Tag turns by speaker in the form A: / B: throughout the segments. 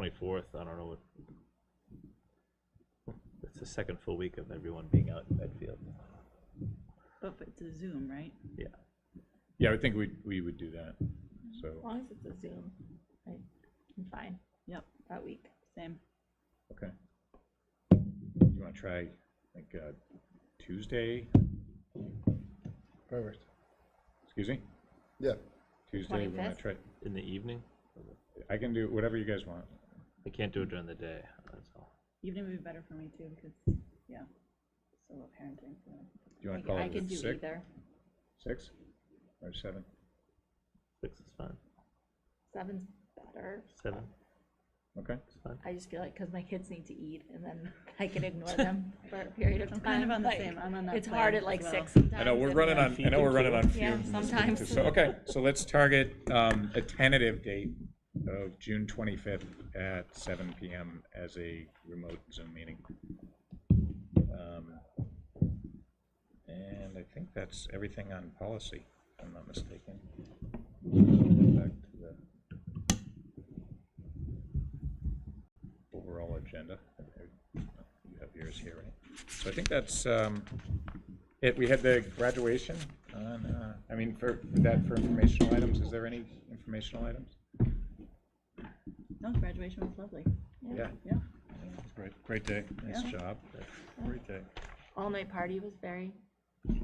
A: twenty-fourth, I don't know what. It's the second full week of everyone being out in Medfield,
B: Oh, But if it's a Zoom, right?
A: yeah.
C: Yeah, I would think we, we would do that,
D: As
C: so,
D: long as it's a Zoom, I- I'm fine
B: Yep,
D: that week.
B: same.
C: okay. You wanna try, like, uh, Tuesday,
E: Perfect.
C: excuse me,
E: Yeah,
C: Tuesday, we wanna
D: 25th?
C: try,
A: In the evening,
C: I can do whatever you guys want.
A: I can't do it during the day, that's all.
B: Evening would be better for me too, because, yeah, still have parenting. so-
C: Do you
D: I
C: wanna call
D: I
C: it
D: can
C: at
D: do
C: six,
D: either.
C: six, or seven?
A: Six is fine,
D: Seven's better.
A: seven
C: Okay,
A: is fine.
D: I just feel like, because my kids need to eat, and then I can ignore them for a period of
B: I'm
D: time.
B: kind of on the
D: like,
B: same, I'm on that
D: It's hard
B: plan
D: at like
B: as
D: six
B: well.
D: sometimes.
C: I know, we're
D: and
C: running
D: then-
C: on, I know we're running on
D: Yeah,
C: fumes.
D: sometimes.
C: So, okay, so let's target, um, a tentative date of June twenty-fifth at seven PM as a remote Zoom meeting. Um, And I think that's everything on policy, if I'm not mistaken. Back to the Overall agenda. You have yours here, right? So I think that's, um, it, we had the graduation on, uh, I mean, for, for that, for informational items, is there any informational items?
B: No, graduation was lovely,
C: Yeah,
B: yeah.
C: great, great day. Nice
B: Yeah.
C: job. Great day.
D: All-night party was very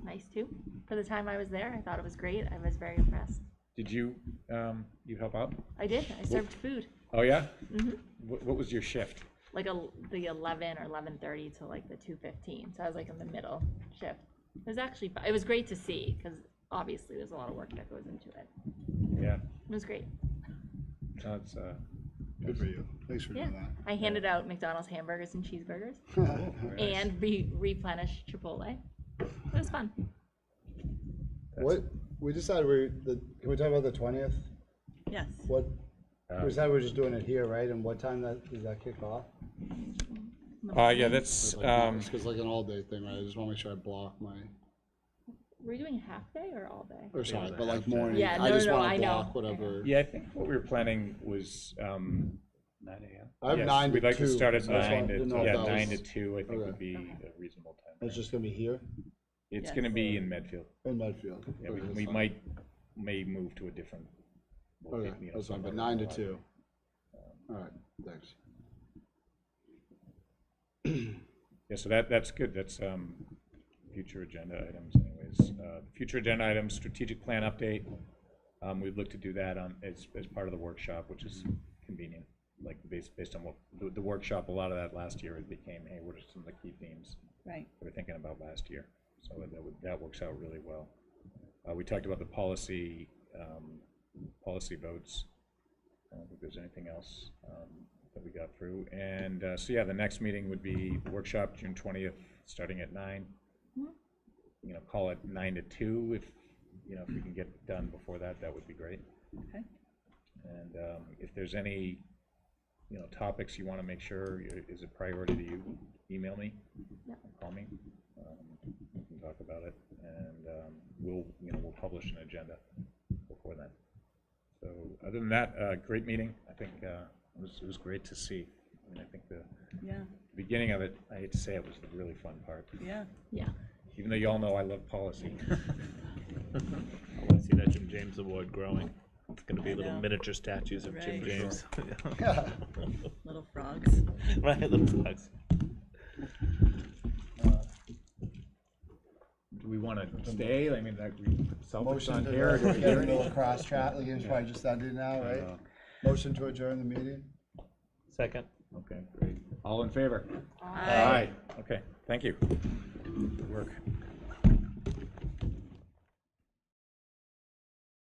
D: nice too. For the time I was there, I thought it was great. I was very impressed.
C: Did you, um, you help out?
D: I did, I served food, Mm-hmm.
C: Oh, yeah? What, what was your shift?
D: like el- the eleven or eleven-thirty to like the two-fifteen, so I was like in the middle shift. It was actually, fu- it was great to see, because obviously there's a lot of work that goes into it.
C: Yeah,
D: It was great.
C: no, it's, uh,
E: good for you. Thanks for
D: Yeah,
E: doing that.
D: I handed out McDonald's hamburgers and cheeseburgers
C: nice.
D: and re- replenished Chipotle. It was fun.
E: What, we decided we, the, can we talk about the twentieth?
B: Yes,
E: What,
C: Uh,
E: we decided we're just doing it here, right? And what time that, does that kick off?
C: Uh, yeah, that's, um,
E: It's 'cause like an all-day thing, right? I just wanna make sure I block my,
D: Were you doing half day or all day?
E: or sorry,
A: but
E: but like
A: half-time.
E: morning,
D: Yeah,
E: I
D: no,
E: just
D: no, no,
E: wanna
D: I know.
E: block whatever.
C: yeah, I think what we were planning was, um, nine AM.
E: I have
C: Yes,
E: nine to
C: We'd like to
E: two,
C: start at
E: so that's why I
C: nine,
E: didn't
C: to-
E: know if
C: yeah,
E: that
C: nine to
E: was-
C: two, I think
E: okay.
C: would be
B: Okay.
C: a reasonable time.
E: It's just gonna be here
C: It's
B: Yes.
C: gonna be in Medfield.
E: in Medfield.
C: Yeah, we,
E: Okay, that's
C: we
E: fine.
C: might, may move to a different.
E: Okay,
C: location, you know,
E: that's fine, but
C: somewhere
E: nine to
C: around
E: two. All right, thanks.
C: Yeah, so that, that's good, that's, um, future agenda items anyways. Uh, Future agenda items, strategic plan update, um, we'd look to do that on, as, as part of the workshop, which is convenient. Like, based, based on what, the, the workshop, a lot of that last year, it became, hey, what are some of the key themes
B: right,
C: we were thinking about last year? So that, would- that works out really well. Uh, we talked about the policy, um, policy votes. I don't think there's anything else um, that we got through. And uh, so, yeah, the next meeting would be workshop, June twentieth, starting at nine. You know, call it nine to two if, you know, if we can get it done before that, that would be great.
B: okay.
C: And um, if there's any, you know, topics you want to make sure i- is a priority to you, email me,
D: Yep.
C: call me. um, We can talk about it, and um, we'll, you know, we'll publish an agenda before then. So other than that, uh, great meeting. I think uh, it was, it was great to see. I mean, I think the
B: Yeah,
C: beginning of it, I hate to say it, was the really fun part,
B: yeah.
D: Yeah.
C: even though y'all know I love policy.
A: I wanna see that Jim James Award growing, it's gonna be
B: I
A: little
B: know.
A: miniature statues of Jim
B: Right.
A: James.
B: Little frogs.
A: Right, little flags.
C: Do we want to stay? I mean, like, we Celtics
E: Motion
C: on
E: to
C: here. or do we
E: get
C: hear
E: a
C: anything?
E: little cross chat, like, it's probably just ended now, right?
C: know.
E: Motion to adjourn the meeting?
A: Second.
C: Okay, great. All in favor?
D: Aye.
C: Aye. Okay, thank you. Good work.